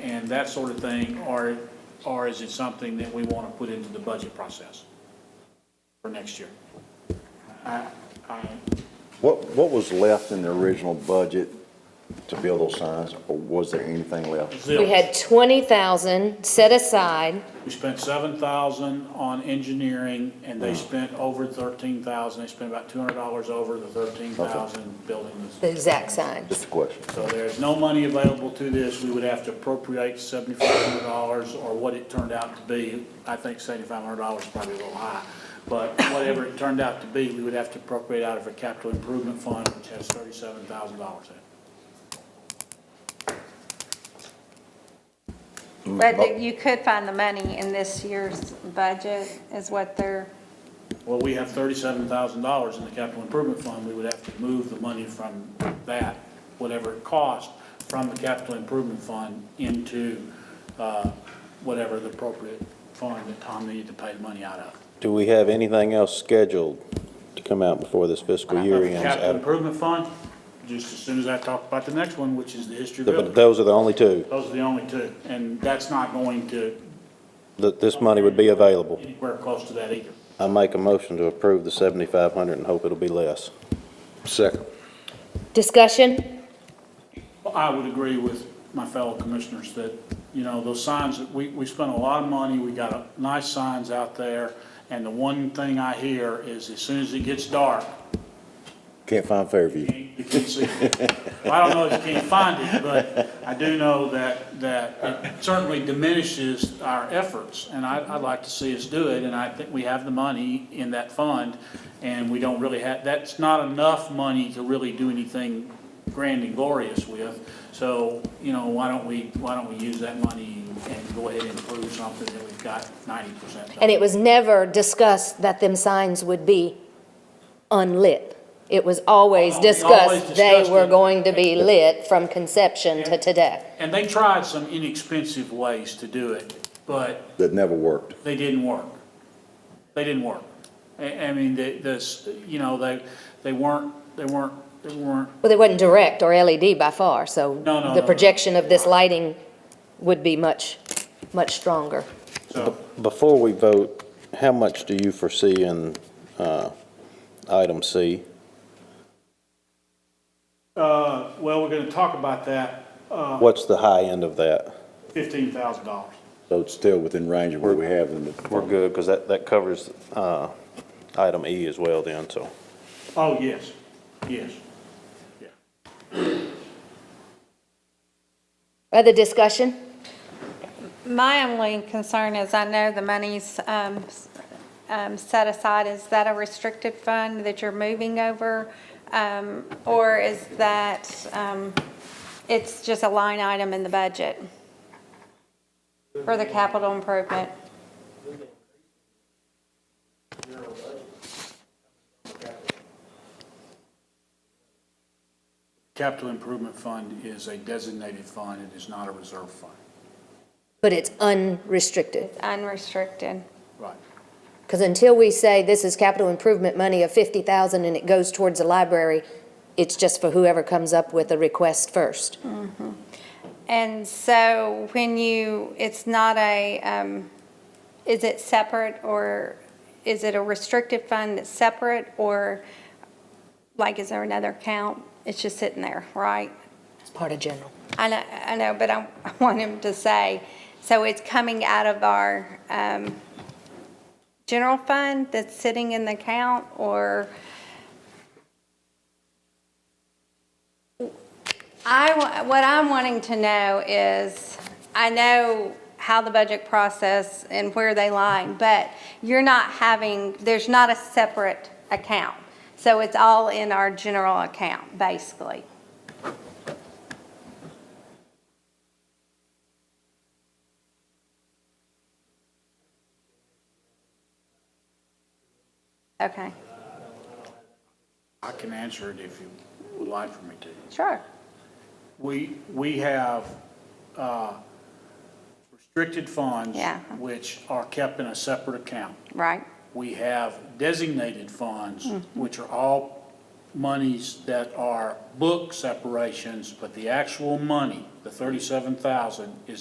and that sort of thing, or, or is it something that we want to put into the budget process for next year? I, I, What, what was left in the original budget to build those signs, or was there anything left? zilch. We had twenty thousand set aside, We spent seven thousand on engineering, and they spent over thirteen thousand, they spent about two hundred dollars over the thirteen thousand building the this. exact signs. Just a question. So there's no money available to this, we would have to appropriate seventy-five hundred dollars, or what it turned out to be. I think seventy-five hundred dollars is probably a little high, but whatever it turned out to be, we would have to appropriate out of a capital improvement fund, which has thirty-seven thousand dollars in it. But that you could find the money in this year's budget is what they're, Well, we have thirty-seven thousand dollars in the capital improvement fund, we would have to move the money from that, whatever it costs, from the capital improvement fund into, uh, whatever the appropriate fund that Tom needed to pay the money out of. Do we have anything else scheduled to come out before this fiscal year Of the Capital ends? improvement fund, just as soon as I talk about the next one, which is the history But building, those are the only two, those are the only two, and that's not going to that this money would be available. anywhere close to that either. I make a motion to approve the 7,500 and hope it'll be less. Second. Discussion? Well, I would agree with my fellow commissioners that, you know, those signs, we, we spent a lot of money, we got a- nice signs out there, and the one thing I hear is as soon as it gets dark, Can't find Fairview. you can't see it. Well, I don't know if you can't find it, but I do know that, that it certainly diminishes our efforts, and I, I'd like to see us do it, and I think we have the money in that fund, and we don't really have, that's not enough money to really do anything grand and glorious with, so, you know, why don't we, why don't we use that money and go ahead and improve something that we've got ninety percent of? And it was never discussed that them signs would be unlit. It was always Oh, we always discussed they discussed were it. going to be lit from conception to today. And they tried some inexpensive ways to do it, but That never worked. they didn't work. They didn't work. I, I mean, the, this, you know, they, they weren't, they weren't, they weren't, Well, they wasn't direct or LED by far, so No, no, no, the no. projection of this lighting would be much, much stronger. so, Before we vote, how much do you foresee in uh, item C? uh, well, we're gonna talk about that, uh, What's the high end of that? fifteen thousand dollars. So it's still within range of where we have in the. We're good, because that, that covers uh, item E as well then, so. Oh, yes, yes, yeah. Other discussion? my only concern is I know the money's um, s- um, set aside. Is that a restricted fund that you're moving over? Um, Or is that, um, it's just a line item in the budget for the capital improvement? Capital Improvement Fund is a designated fund, it is not a reserve fund. But it's unrestricted. Unrestricted. Right. Because until we say this is capital improvement money of 50,000 and it goes towards the library, it's just for whoever comes up with a request first. And so when you, it's not a, um, is it separate or is it a restricted fund that's separate or like, is there another account? It's just sitting there, right? It's part of general. I know, I know, but I I want him to say, so it's coming out of our, um, general fund that's sitting in the account or? I, wa- what I'm wanting to know is, I know how the budget process and where they lie, but you're not having, there's not a separate account. So it's all in our general account, basically. Okay, I can answer it if you would like for me to. sure. We, we have uh, restricted funds. Yeah. Which are kept in a separate account. Right, We have designated funds, which are all monies that are book separations, but the actual money, the thirty-seven thousand, is